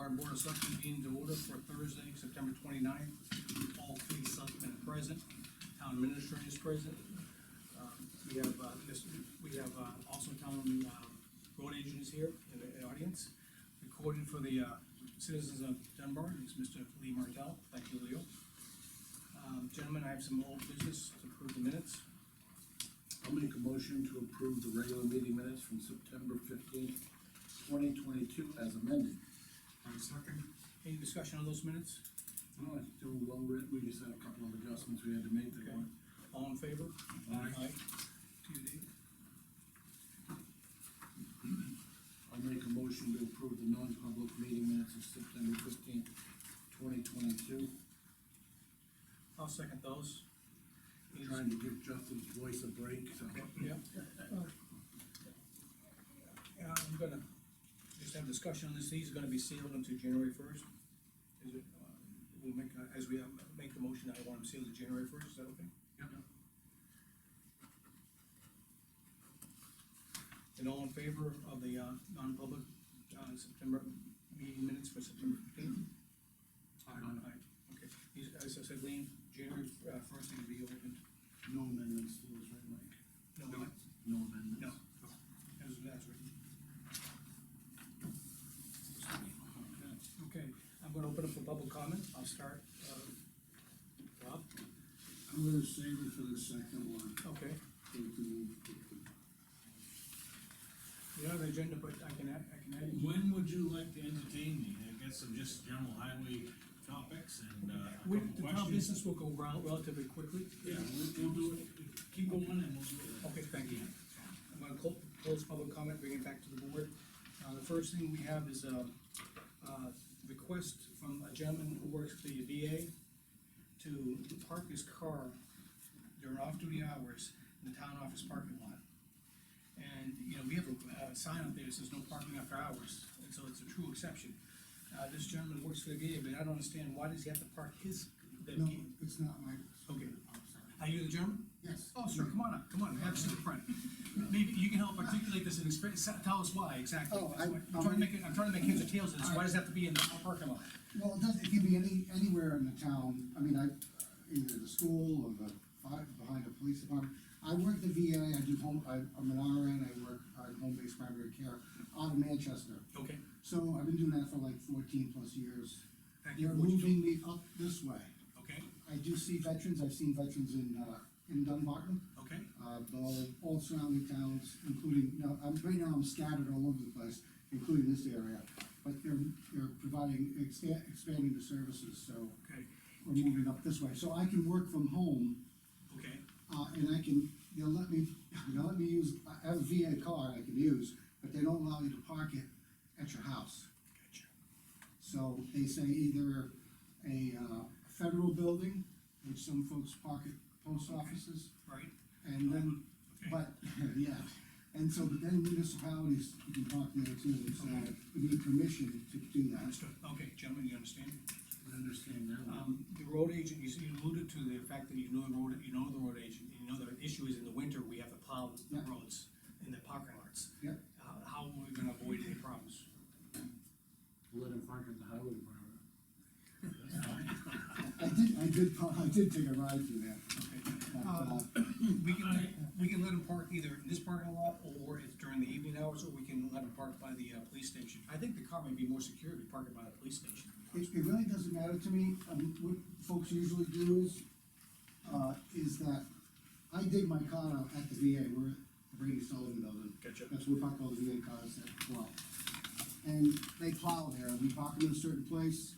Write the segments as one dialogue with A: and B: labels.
A: our board of selectmen meeting to order for Thursday, September 29th. All three selectmen are present, town administrator is present. Um, We have, uh, this, we have, uh, also town, um, road agents here in the- in the audience. Recorded for the, uh, citizens of Dunbar is Mr. Lee Martell, thank you, Leo. Um, gentlemen, I have some old business to approve the minutes.
B: I'll make a motion to approve the regular meeting minutes from September fifteenth, twenty twenty-two as amended.
C: I second.
A: Any discussion on those minutes?
B: No, it's still well written, we just had a couple of adjustments we had to make that weren't.
A: All in favor?
C: Aye.
A: To you, Dave.
B: I'll make a motion to approve the non-public meeting minutes of September fifteenth, twenty twenty-two.
A: I'll second those. Any
B: Trying to give Justin's voice a break, so.
A: Yep. Yeah, I'm gonna just have discussion on this, these are gonna be sealed until January first. Is it, uh, we'll make, a- as we uh, make the motion, I want them sealed to January first, is that okay?
C: Yep.
A: And all in favor of the, uh, non-public, uh, September meeting minutes for September fifteenth?
B: Aye.
A: Okay, He's- as I said, Lean, January uh, first thing to be opened.
B: No amendments to those, right, Mike?
A: No,
C: No.
B: No amendments?
A: No. as, as written. Okay, I'm gonna open up for public comment, I'll start, uh, Rob,
D: I'm gonna save it for the second one.
A: okay,
D: Take the move quickly.
A: you don't have an agenda, but I can add, I can add. it.
E: When would you like to entertain me? I got some just general highway topics and, uh, a
A: We,
E: couple
A: the town
E: questions.
A: business will go rel- relatively quickly,
E: Yeah, we'll, we'll do it, keep going and we'll do it.
A: Okay, thank you. I'm gonna clo- close public comment, bring it back to the board. Uh, the first thing we have is a, uh request from a gentleman who works for the VA to park his car during off-duty hours in the town office parking lot. And, you know, we have a, uh sign up there that says no parking after hours, and so it's a true exception. Uh, this gentleman works for the VA, but I don't understand, why does he have to park his, the,
D: No, it's not my.
A: Okay.
D: I'm sorry.
A: are you the gentleman?
D: Yes.
A: Oh, sure, come on up, come on, have a seat in front. Maybe you can help articulate this and explain, tell us why exactly.
D: Oh, I-
A: That's what- I'm trying to make, it- I'm trying to make heads or tails of this,
D: All
A: why
D: right.
A: does it have to be in the parking lot?
D: Well, it doesn't, it can be any, anywhere in the town, I mean, I, either the school or the, fi- behind the police department. I work the VA, I do home, I, I'm an RN, I work, uh home-based primary care out of Manchester.
A: Okay,
D: So I've been doing that for like fourteen plus years.
A: Thank you.
D: You're moving me up this way.
A: okay,
D: I do see veterans, I've seen veterans in, uh, in Dunbarton.
A: okay,
D: uh, but all, all surrounding towns, including, now, I'm, right now I'm scattered all over the place, including this area. But they're, they're providing, exta- expanding the services, so
A: okay,
D: we're moving up this way. So I can work from home,
A: okay,
D: uh, and I can, they'll let me, they'll let me use, I have a VA card I can use, but they don't allow you to park it at your house.
A: gotcha.
D: So they say either a, uh, federal building, which some folks park at post offices,
A: Right?
D: and then
A: Okay.
D: But, yeah, and so, but then municipalities, you can park there too, and so we need permission to do that.
A: Understood, okay, gentlemen, you understand?
B: I understand that one.
A: Um, the road agent, you s- you alluded to the fact that you know the road, you know the road agent, you know the issue is in the winter, we have to plow the
D: Yeah.
A: roads in the parking lots.
D: Yeah.
A: How, how are we gonna avoid any problems?
B: Let him park at the highway department.
D: I did, I did, pa- I did take a ride through there.
A: Okay.
D: but, uh,
A: We can, we can let them park either in this parking lot, or it's during the evening hours, or we can let them park by the, uh, police station. I think the car may be more secure if you park it by the police station.
D: It, it really doesn't matter to me, um, what folks usually do is, uh, is that I dig my car out at the VA, we're at the Brady Sullivan Building.
A: Gotcha.
D: That's where we park all the VA cars at, well. And they plow there, we park them in a certain place,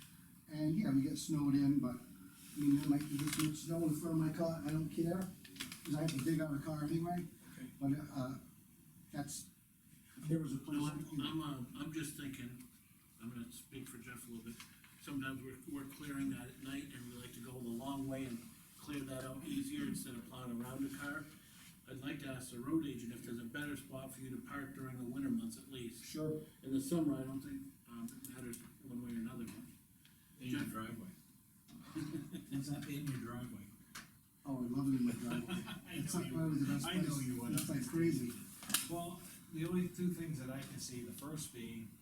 D: and yeah, we get snowed in, but, I mean, there might be this much snow in front of my car, I don't care, cause I have to dig out a car anyway,
A: Okay.
D: but, uh, that's, if there was a place.
F: No, I'm, I'm, uh, I'm just thinking, I'm gonna speak for Jeff a little bit. Sometimes we're, we're clearing that at night and we like to go the long way and clear that out easier instead of plowing around a car. I'd like to ask the road agent if there's a better spot for you to park during the winter months at least.
D: Sure.
F: In the summer, I don't think, um, it matters one way or another, but
E: In your driveway. It's not in your driveway.
D: Oh, I love it in my driveway. It's like probably the best
E: I
D: place.
E: know you would.
D: It's like crazy.
G: Well, the only two things that I can see, the first being,